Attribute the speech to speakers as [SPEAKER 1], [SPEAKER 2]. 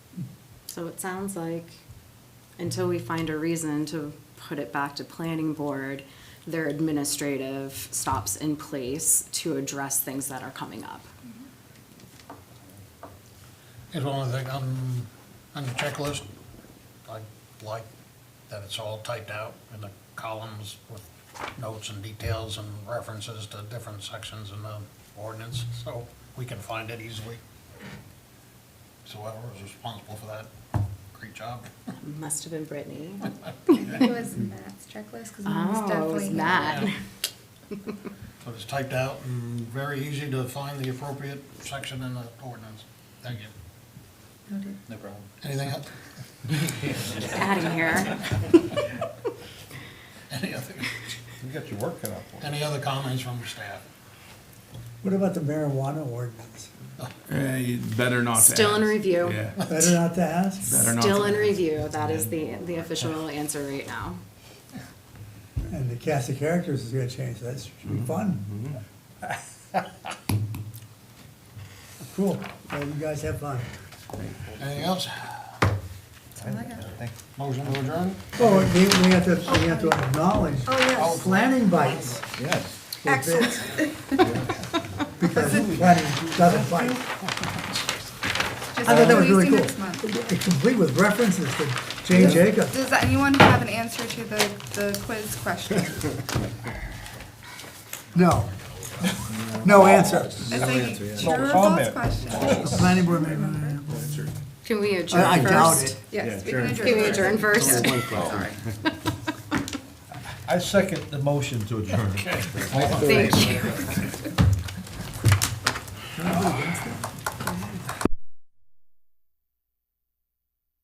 [SPEAKER 1] So it sounds like until we find a reason to put it back to planning board, their administrative stops in place to address things that are coming up.
[SPEAKER 2] It's one of the, things on, on the checklist, I like that it's all typed out in the columns with notes and details and references to different sections in the ordinance, so we can find it easily. So whoever was responsible for that, great job.
[SPEAKER 1] Must have been Brittany.
[SPEAKER 3] I think it was Matt's checklist, because mine was
[SPEAKER 1] Oh, it
[SPEAKER 3] definitely.
[SPEAKER 1] was Matt.
[SPEAKER 2] So it's typed out and very easy to find the appropriate section in the ordinance. Thank you.
[SPEAKER 3] Noted.
[SPEAKER 4] No problem.
[SPEAKER 2] Anything, else?
[SPEAKER 1] Adding here.
[SPEAKER 2] any other,
[SPEAKER 4] You got your work cut out for
[SPEAKER 2] any other comments from staff?
[SPEAKER 5] What about the marijuana ordinance?
[SPEAKER 6] Eh, you better not. to
[SPEAKER 1] Still in
[SPEAKER 6] ask.
[SPEAKER 1] review.
[SPEAKER 6] Yeah.
[SPEAKER 5] Better not to ask?
[SPEAKER 6] Better not
[SPEAKER 1] Still
[SPEAKER 6] to
[SPEAKER 1] in
[SPEAKER 6] ask.
[SPEAKER 1] review. That is the, the official answer right now.
[SPEAKER 5] And the cast of characters is gonna change, that should be fun. Mm-hmm. Cool, well, you guys have fun.
[SPEAKER 2] Anything else?
[SPEAKER 4] Thank
[SPEAKER 2] Motion to adjourn?
[SPEAKER 5] Oh, we, we have to, we have to acknowledge
[SPEAKER 3] Oh,
[SPEAKER 5] planning bites.
[SPEAKER 4] you. Yes.
[SPEAKER 5] Excellent. Because planning doesn't bite,
[SPEAKER 3] Just
[SPEAKER 5] I thought that was
[SPEAKER 3] please
[SPEAKER 5] really
[SPEAKER 3] do
[SPEAKER 5] cool.
[SPEAKER 3] next month.
[SPEAKER 5] It's complete with references to Jane Jacobs.
[SPEAKER 3] Does anyone have an answer to the, the quiz question? It's
[SPEAKER 5] No. No answer.
[SPEAKER 3] like
[SPEAKER 4] answer,
[SPEAKER 3] a
[SPEAKER 4] yeah. No
[SPEAKER 3] true or false
[SPEAKER 4] comment.
[SPEAKER 3] question.
[SPEAKER 5] The planning board member.
[SPEAKER 1] Can we adjourn
[SPEAKER 5] I I
[SPEAKER 1] first?
[SPEAKER 5] doubt it.
[SPEAKER 3] Yes, we can adjourn.
[SPEAKER 1] Can we
[SPEAKER 3] first.
[SPEAKER 1] adjourn first?
[SPEAKER 4] I second the motion to adjourn.
[SPEAKER 1] Thank you.